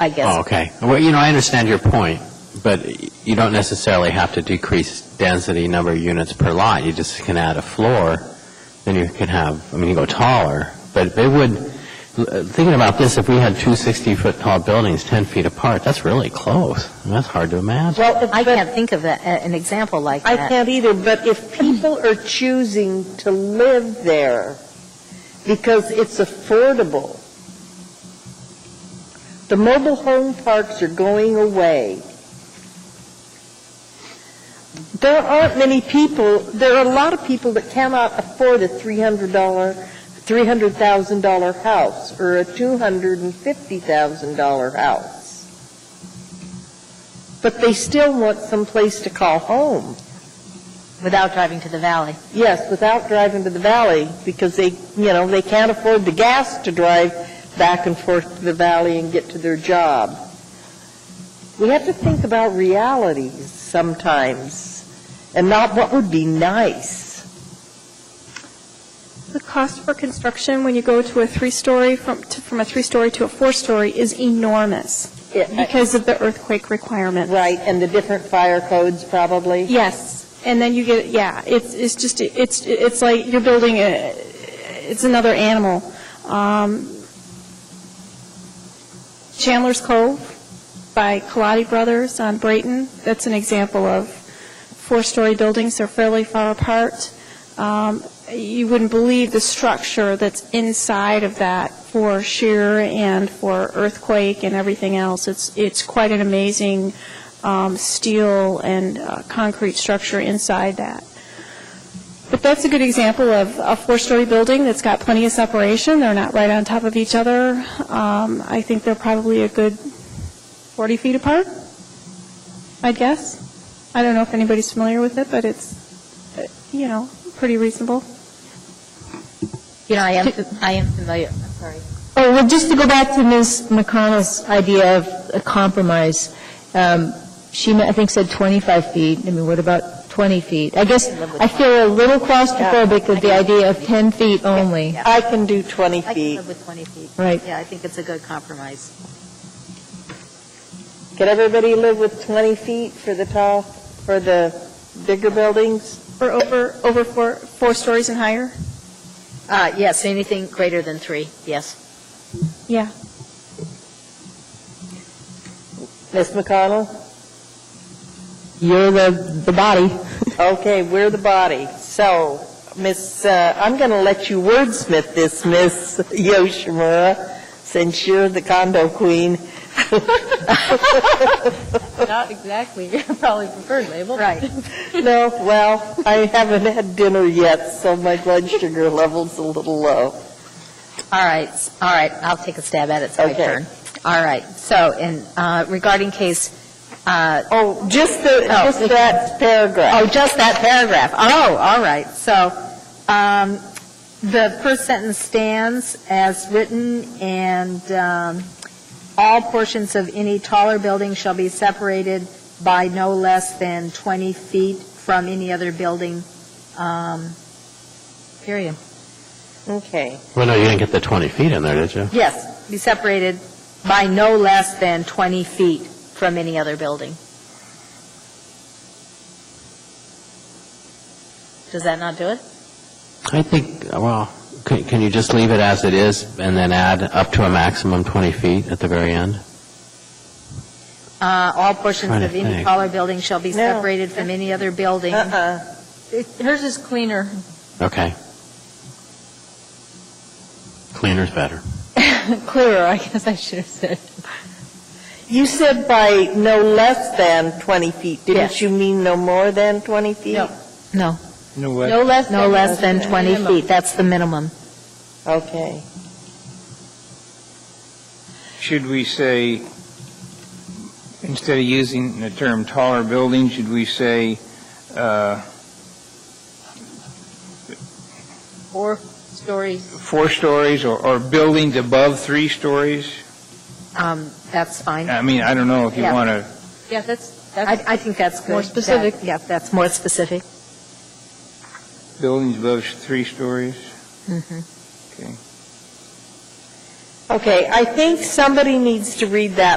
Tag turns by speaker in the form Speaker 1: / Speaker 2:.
Speaker 1: I guess.
Speaker 2: Oh, okay. Well, you know, I understand your point, but you don't necessarily have to decrease density number of units per lot. You just can add a floor, then you can have, I mean, you go taller, but it would, thinking about this, if we had two 60-foot tall buildings 10 feet apart, that's really close. I mean, That's hard to imagine.
Speaker 3: Well, if-
Speaker 1: I
Speaker 3: but
Speaker 1: can't think of a- a- an example like
Speaker 3: I
Speaker 1: that.
Speaker 3: can't either, but if people are choosing to live there because it's affordable, the mobile home parks are going away. There aren't many people, there are a lot of people that cannot afford a $300, $300,000 house or a $250,000 house. But they still want some place to call home.
Speaker 1: Without driving to the valley.
Speaker 3: Yes, without driving to the valley, because they, you know, they can't afford the gas to drive back and forth to the valley and get to their job. We have to think about realities sometimes, and not what would be nice.
Speaker 4: The cost for construction, when you go to a three-story, from, to- from a three-story to a four-story, is enormous because of the earthquake requirement.
Speaker 3: Right, and the different fire codes, probably.
Speaker 4: Yes, and then you get, yeah, it's, it's just, it's, it's like you're building a, it's another animal. Um, Chandler's Cove by Colati Brothers on Brayton, that's an example of four-story buildings, they're fairly far apart. Um, You wouldn't believe the structure that's inside of that for shear and for earthquake and everything else. It's, it's quite an amazing um, steel and uh, concrete structure inside that. But that's a good example of a four-story building that's got plenty of separation. They're not right on top of each other. Um, I think they're probably a good 40 feet apart, I guess. I don't know if anybody's familiar with it, but it's, uh, you know, pretty reasonable.
Speaker 1: You know, I am, I am familiar, I'm sorry.
Speaker 5: Oh, well, just to go back to Ms. McConnell's idea of a compromise, um, she, I think, said 25 feet. I mean, what about 20 feet? I guess I feel a little claustrophobic with the idea of 10 feet only.
Speaker 1: Yeah.
Speaker 3: I can do 20
Speaker 1: I can
Speaker 3: feet.
Speaker 1: live with 20 feet.
Speaker 5: Right.
Speaker 1: Yeah, I think it's a good compromise.
Speaker 3: Can everybody live with 20 feet for the tall, for the bigger buildings?
Speaker 4: Or over, over four, four stories and higher?
Speaker 1: Uh, Yes, anything greater than three, yes.
Speaker 4: Yeah.
Speaker 3: Ms. McConnell?
Speaker 5: You're the, the body.
Speaker 3: Okay, we're the body. So, Miss, uh, I'm going to let you wordsmith this, Miss Yoshimura, since you're the condo queen.
Speaker 6: Not exactly, probably preferred label.
Speaker 1: Right.
Speaker 3: No, well, I haven't had dinner yet, so my blood sugar level's a little low.
Speaker 1: All right, s- all right, I'll take a stab at it, it's my
Speaker 3: Okay.
Speaker 1: turn. All right, so in, uh, regarding case, uh,
Speaker 3: Oh, just the,
Speaker 1: Oh.
Speaker 3: just that paragraph.
Speaker 1: Oh, just that paragraph. Oh, all right. So um, the first sentence stands as written, and um, all portions of any taller building shall be separated by no less than 20 feet from any other building, um, period. Oh.
Speaker 3: Okay.
Speaker 2: Well, no, you didn't get the 20 feet in there, did you?
Speaker 1: Yes, be separated by no less than 20 feet from any other building. Does that not do it?
Speaker 2: I think, well, can can you just leave it as it is and then add up to a maximum 20 feet at the very end?
Speaker 1: Uh, All portions
Speaker 2: Trying to
Speaker 1: of any
Speaker 2: think.
Speaker 1: taller building shall be
Speaker 3: No.
Speaker 1: separated from any other building.
Speaker 3: Uh-uh.
Speaker 6: Hers is cleaner.
Speaker 2: Okay. Cleaner's better.
Speaker 6: Clearer, I guess I should have said.
Speaker 3: You said by no less than 20 feet. Didn't
Speaker 1: Yes.
Speaker 3: you mean no more than 20 feet?
Speaker 1: No. No,
Speaker 7: No
Speaker 6: No less than.
Speaker 1: no less than 20
Speaker 6: Minimum.
Speaker 1: feet, that's the minimum.
Speaker 3: Okay.
Speaker 7: Should we say, instead of using the term taller building, should we say, uh,
Speaker 6: Four stories.
Speaker 7: four stories or, or buildings above three stories?
Speaker 1: Um, That's fine. I,
Speaker 7: I mean, I don't know if you
Speaker 1: Yeah.
Speaker 7: want to,
Speaker 6: Yeah, that's, that's,
Speaker 1: I think that's good.
Speaker 6: More
Speaker 1: That-
Speaker 6: specific.
Speaker 1: Yeah, that's more specific.
Speaker 7: buildings above three stories?
Speaker 1: Mhm.
Speaker 7: Okay.
Speaker 3: Okay, I think somebody needs to read that